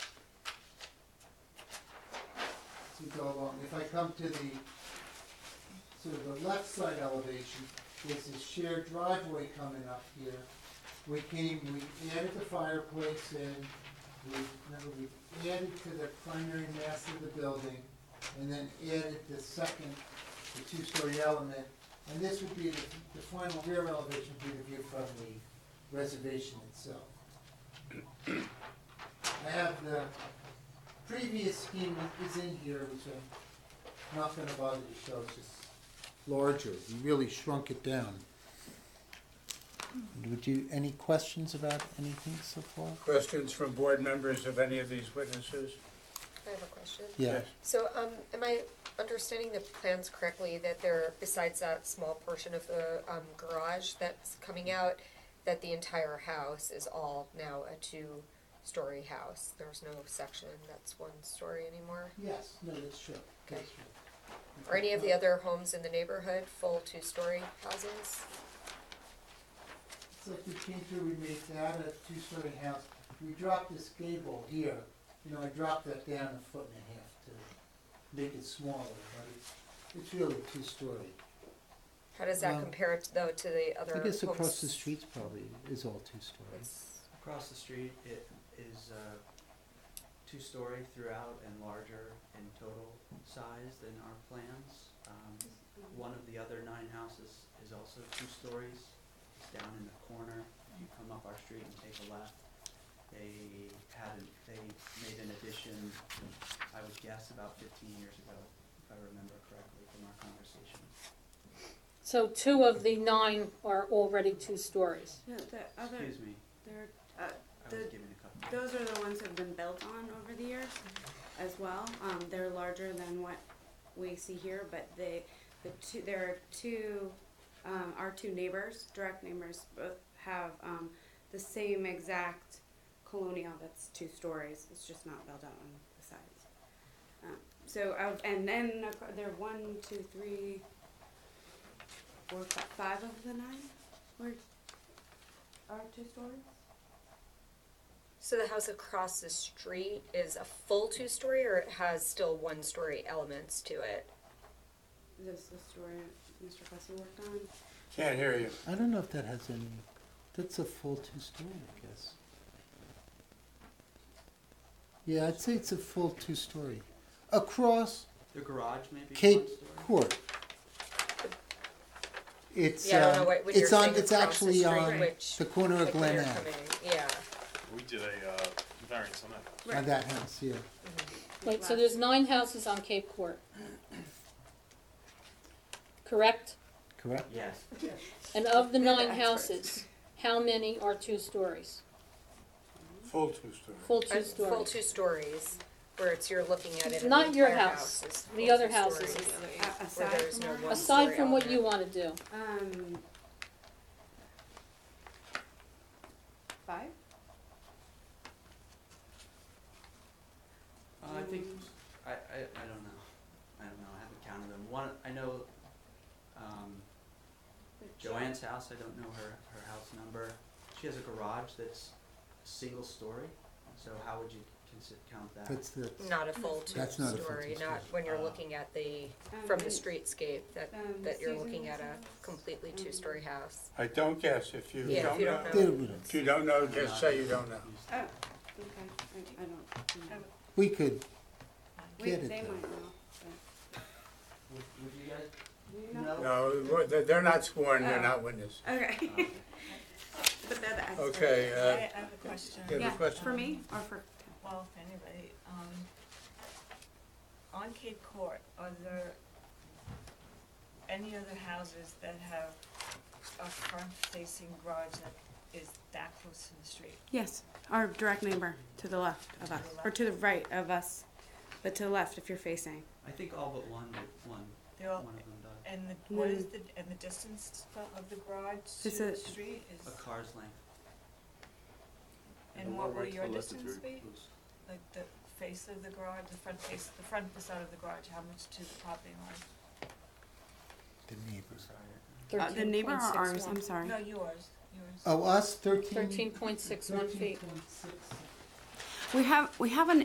we go along. If I come to the, sort of the left side elevation, there's a shared driveway coming up here. We came, we added the fireplace in, we, remember, we added to the primary mass of the building, and then added the second, the two-story element. And this would be, the the final rear elevation would be the view from the reservation itself. I have the previous scheme that is in here, which I'm not gonna bother to show, it's just larger, we really shrunk it down. Would you, any questions about anything so far? Questions from board members of any of these witnesses? I have a question. Yeah, So, um, am I understanding the plans correctly that there, besides that small portion of the, um, garage that's coming out, that the entire house is all now a two-story house? There's no section that's one story anymore? yes, no, that's true, that's Okay. true. Are any of the other homes in the neighborhood full two-story houses? It's like we came through, we made that a two-story house, we dropped this gable here, you know, I dropped that down a foot and a half to make it smaller, but it's, it's really two-story. How does that Um, compare to- though to the other I homes? guess across the streets probably is all two-story. It's- Across the street, it is uh, two-story throughout and larger in total size than our plans. Um, One of the other nine houses is also two stories. It's down in the corner. If you come up our street and take a left, they had, an- they made an addition, I would guess about fifteen years ago, if I remember correctly from our conversation. So two of the nine are already two stories. No, the other, Excuse me, there, uh, I was The- given a couple. those are the ones that have been built on over the years as well. Um, they're larger than what we see here, but they, the two, there are two, um, our two neighbors, direct neighbors, both have, um, the same exact colonial that's two stories. It's just not built out on the sides. Um, so, uh, and then ac- there are one, two, three, four, fi- five of the nine were, are two stories? So the house across the street is a full two-story or it has still one-story elements to it? This is the story Mr. Plessy worked on. Can't hear you. I don't know if that has any, that's a full two-story, I guess. Yeah, I'd say it's a full two-story. Across The garage maybe is one Cape story? Court. It's, Yeah, I don't know uh, what, when you're it's on, saying it's across the actually street, on which, the corner of like when Glen you're Ave, coming, yeah. We did a uh, variance on that. on that house, yeah. Wait, so there's nine houses on Cape Court. Correct? Correct? Yes. And of the They're the nine experts. houses, how many are two stories? Full two-story. Full Uh, two Full stories? two stories, where it's, you're looking at it and the Not your entire house, is the full other two houses stories, is- A- Where Aside there's from no our- one Aside story from what you element. wanna do, Um, five? Uh, I think Um, I, I, I don't know. I don't know. I haven't counted them. One I know um, Joanne's house. I don't know her her house number. She has a garage that's a single story. So how would you consi- count that? That's the, Not a full That's not a full two-story, two-story. not when you're Ah. looking at the, Oh. Um, from the and- streetscape, that, um, that you're Susan looking at a Wilson's. completely Um, two-story house. I don't guess. If you Yeah, if don't you know, don't know. there we go. if you don't know, I'm just not- say you don't know. Oh, okay, I, I don't. know. We could Wait, get it they though. might know. Would, would you guys? but- No. No, what- they're- they're not sworn, they're Oh. not witnesses. Okay. But they're the experts. Okay, uh, I I have a question. you have a Yeah, for question? me or for, Well, for anybody, um, on Cape Court, are there any other houses that have a front-facing garage that is that close to the street? yes, our direct neighbor to the left of us, or to the right of us, but to the left if you're facing. I think all but one would- one They're all, one of them does. and the, what is the, and the distance fro- of the garage to It's the a- street A is, car's length. and what will your distance be? Like the face of the garage, the front face, the front facade of the garage, how much to the property line? The neighbors. Uh, the thirteen neighbor point or six ours, one. I'm sorry. No, yours, yours. Oh, us, thirteen? Thirteen point six one feet. 13.61. We have, we have an